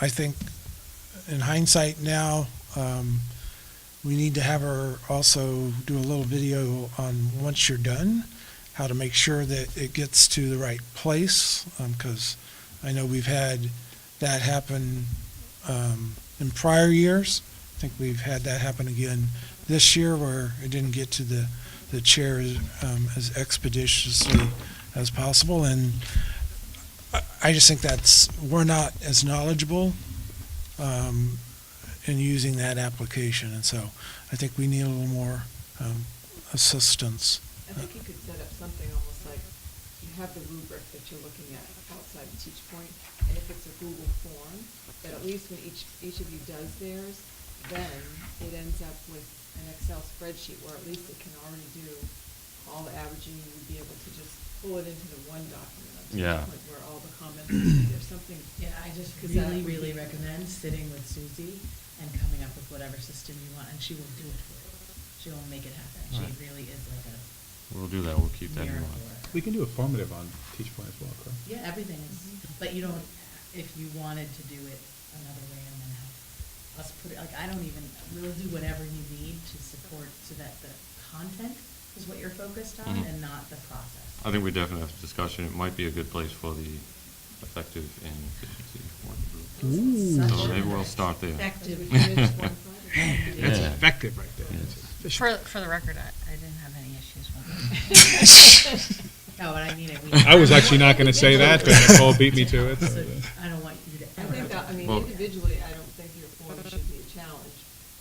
I think in hindsight now, um, we need to have her also do a little video on once you're done, how to make sure that it gets to the right place, because I know we've had that happen um, in prior years. I think we've had that happen again this year where it didn't get to the, the chair um, as expeditiously as possible. And I- I just think that's, we're not as knowledgeable um, in using that application. And so I think we need a little more um, assistance. I think you could set up something almost like, you have the rubric that you're looking at outside of Teach Point, and if it's a Google form, that at least when each, each of you does theirs, then it ends up with an Excel spreadsheet, where at least it can already do all the averaging, you would be able to just pull it into the one document. on Teach Yeah. Point, Where all the comments, are made. there's something. Yeah, I just 'cause that really, would really be- recommend sitting with Susie and coming up with whatever system you want, and she will do it for you. She will make it happen. She Right. really is like a We'll do that, we'll keep that in miracle mind. worker. We can do a formative on Teach Point as well, correct? Yeah, everything is, Mhm. but you don't, if you wanted to do it another way and then have us put it, like, I don't even, we'll do whatever you need to support so that the content is what you're focused on Mhm. and not the process. I think we definitely have a discussion, it might be a good place for the effective and efficiency working group. It's Ooh. such So an maybe we'll start there. Effective. Because we finished one Friday. Yeah. That's effective right there. Yes. That's efficient. For, for the record, I, I didn't have any issues with it. No, and I mean it. We- I was actually not gonna say that, but Nicole beat me to it, so- So, I don't want you to I ever. think that, I mean, Well- individually, I don't think your form should be a challenge.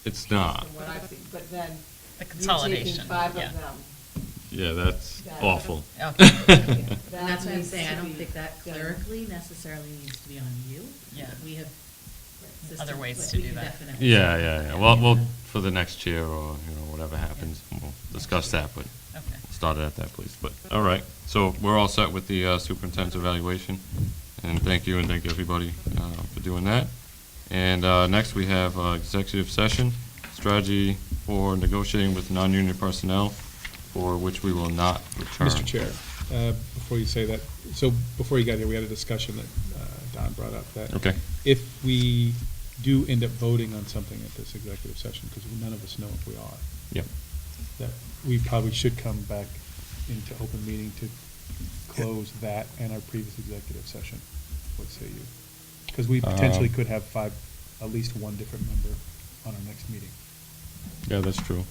It's not, From what I've seen, but then. The you're taking consolidation, five yeah. of them. yeah, that's That- awful. Okay. And that's what I'm needs saying, I to don't be think that done. clerically necessarily needs to be on you. Yeah. We have. Right. systems, Other ways but to we do can that. definitely- Yeah, yeah, yeah, well, well, for the next year or, you know, whatever happens, we'll discuss that, but Okay. start it at that place, but, all right. So we're all set with the uh, superintendent's evaluation, and thank you and thank everybody uh, for doing that. And uh, next, we have uh, executive session, strategy for negotiating with non-union personnel, for which we will not return. Mr. Chair, uh, before you say that, so before you got here, we had a discussion that uh, Don brought up that. Okay. If we do end up voting on something at this executive session, because none of us know if we are, Yep. that we probably should come back into open meeting to close that and our previous executive session. What say you? Because we potentially Um, could have five, at least one different member on our next meeting. Yeah, that's true.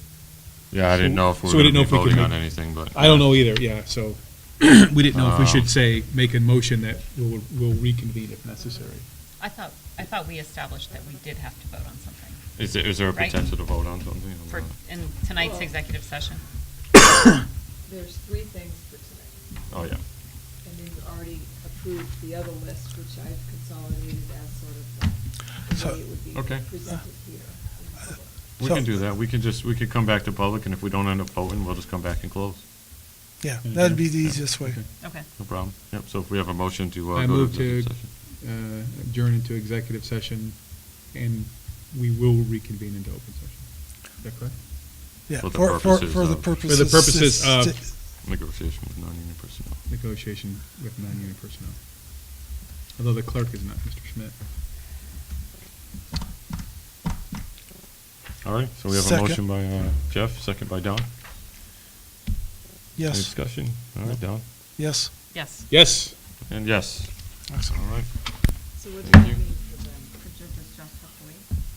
Yeah, I So- didn't know if we so were we going didn't to know be if we could voting on make- anything, but. I don't know either, yeah, so, we didn't know if we Um, should say, make a motion that we'll, we'll reconvene if necessary. I thought, I thought we established that we did have to vote on something Is there, is there a Right. potential to vote on something? or for, not? in tonight's Well- executive session. There's three things for tonight, Oh, yeah. and then you already approved the other list, which I've consolidated as sort of the So- way it would be Okay. presented here. in public. We So- can do that. We can just, we could come back to public, and if we don't end up voting, we'll just come back and close. Yeah, Mm-hmm. that'd be the easiest way. Okay. Okay. No problem. Yep, so if we have a motion to. uh, I go move to executive session. uh, adjourn into executive session, and we will reconvene into open session. Is that correct? Yeah, For the for, for, purposes for the of- For the purposes. purposes of- sti- Negotiation with non-union personnel. Negotiation with non-union personnel. Although the clerk is not Mr. Schmidt. All right, so we have a Second. motion by uh, Jeff, second by Don. Any Yes, discussion? All right, Don? yes. Yes. Yes. And yes. All right. So what does Thank that you. mean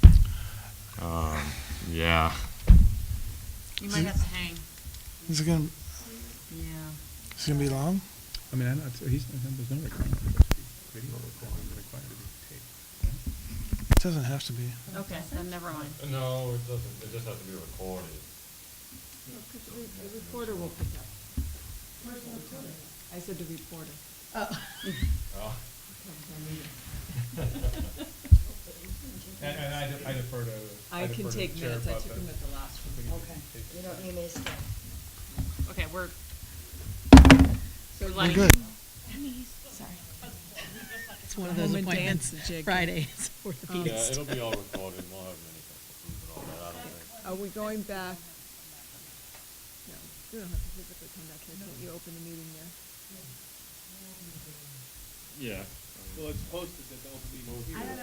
for them? Um, Yeah. You might have to hang. Is it gonna, Yeah. it's gonna be long? I mean, I don't, he's, I don't- there's no requirement for this to be video recording, but required to be taped. right? It doesn't have to be. Okay, then never mind. No, it doesn't, it just has to be recorded. No, 'cause the- The reporter will pick up. I said the reporter. Oh. And, and I de- I defer to. I can defer to take the chair minutes, I about took that. them at the last I think one. it Okay, can be you taped. don't need me to stay. Okay, we're, So We're We're Like- good. Sorry. It's one of those appointments, Fridays, Oh. orthopedics. be all recorded, we'll have minutes, all that, I don't think. Are we going back? No, we don't have to physically come back here, don't you open the meeting there? Yeah. Well, it's posted that the open meeting. I don't know